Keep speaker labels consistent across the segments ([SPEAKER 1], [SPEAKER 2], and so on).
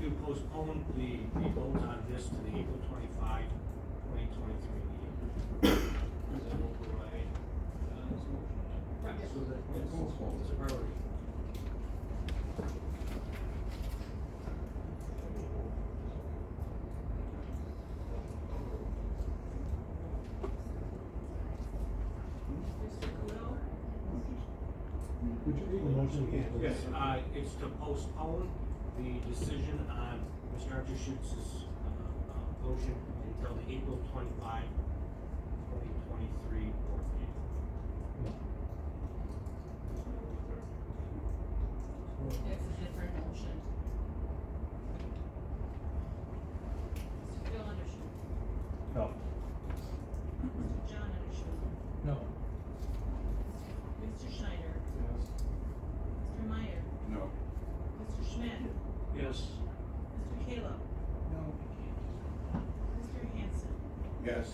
[SPEAKER 1] to postpone the, the vote on this to the April twenty-five, twenty twenty-three meeting. Is that override, uh, this motion?
[SPEAKER 2] Right.
[SPEAKER 1] So that, that's a priority.
[SPEAKER 2] Mr. Cahill?
[SPEAKER 3] Would you read the motion again? please?
[SPEAKER 1] Yes, uh, it's to postpone the decision on Mr. Archer Schutz's, uh, uh, motion until the April twenty-five, twenty twenty-three board meeting.
[SPEAKER 2] That's a different motion. Mr. Phil Anderson.
[SPEAKER 3] No.
[SPEAKER 2] Mr. John Anderson.
[SPEAKER 3] No.
[SPEAKER 2] Mr. Schneider.
[SPEAKER 3] Yes.
[SPEAKER 2] Mr. Meyer.
[SPEAKER 4] No.
[SPEAKER 2] Mr. Schmidt.
[SPEAKER 1] Yes.
[SPEAKER 2] Mr. Caleb.
[SPEAKER 3] No.
[SPEAKER 2] Mr. Hanson.
[SPEAKER 4] Yes.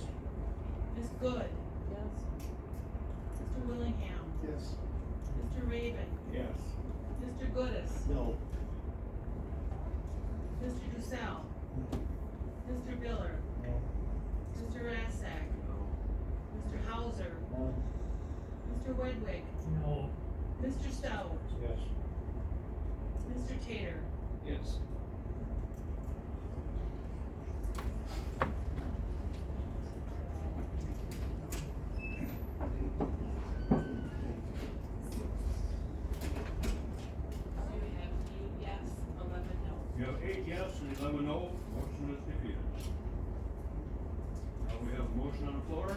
[SPEAKER 2] Ms. Good. Yes. Mr. Willingham.
[SPEAKER 4] Yes.
[SPEAKER 2] Mr. Raven.
[SPEAKER 4] Yes.
[SPEAKER 2] Mr. Goodis.
[SPEAKER 4] No.
[SPEAKER 2] Mr. Dussel. Mr. Miller. Mr. Rasak. Mr. Hauser. Mr. Wedwick.
[SPEAKER 3] No.
[SPEAKER 2] Mr. Stout.
[SPEAKER 1] Yes.
[SPEAKER 2] Mr. Tater.
[SPEAKER 1] Yes.
[SPEAKER 2] So we have eight yes, eleven no.
[SPEAKER 4] You have eight yes and eleven no, motion is defeated. Now Uh, we have a motion on the floor.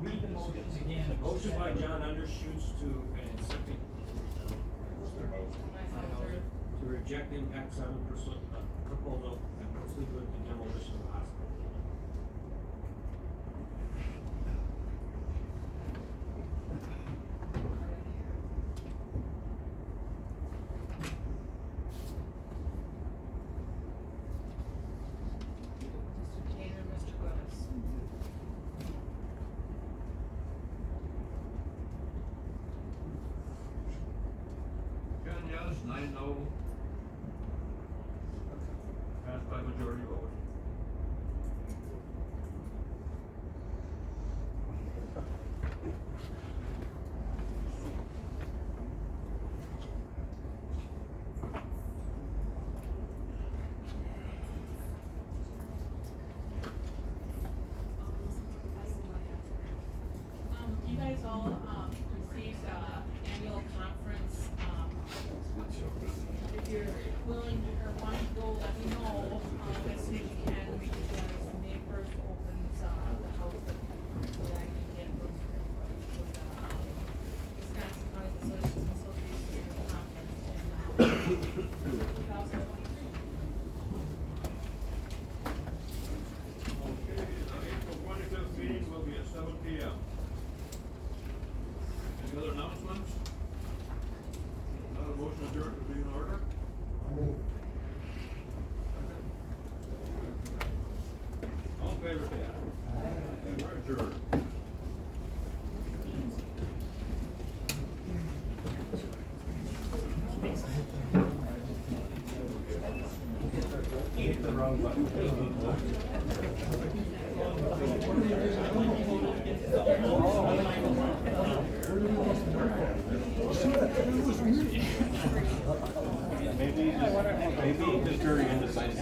[SPEAKER 5] Read the motions again.
[SPEAKER 1] A motion by John Undershoots to, and second, to reject impact seven percent, uh, proposal and proceed with the demolition of the hospital.
[SPEAKER 2] Mr. Tater, Mr. Goodis.
[SPEAKER 4] Ten yes, nine no. Passed by majority vote.
[SPEAKER 2] Um, you guys all, um, received, uh, annual conference, um, if you're willing or want to go, let me know, um, as soon as you can, we can, uh, May first opens, uh, the house, so that I can get those, those, uh, Wisconsin County Association, Association Conference in, uh, two thousand twenty-three.
[SPEAKER 4] Okay, the April twenty-fifth meeting will be at seven P M. Any other announcements? Another motion adjourned would be in order. All in favor, say aye. And we're adjourned.
[SPEAKER 6] Maybe the jury undecided.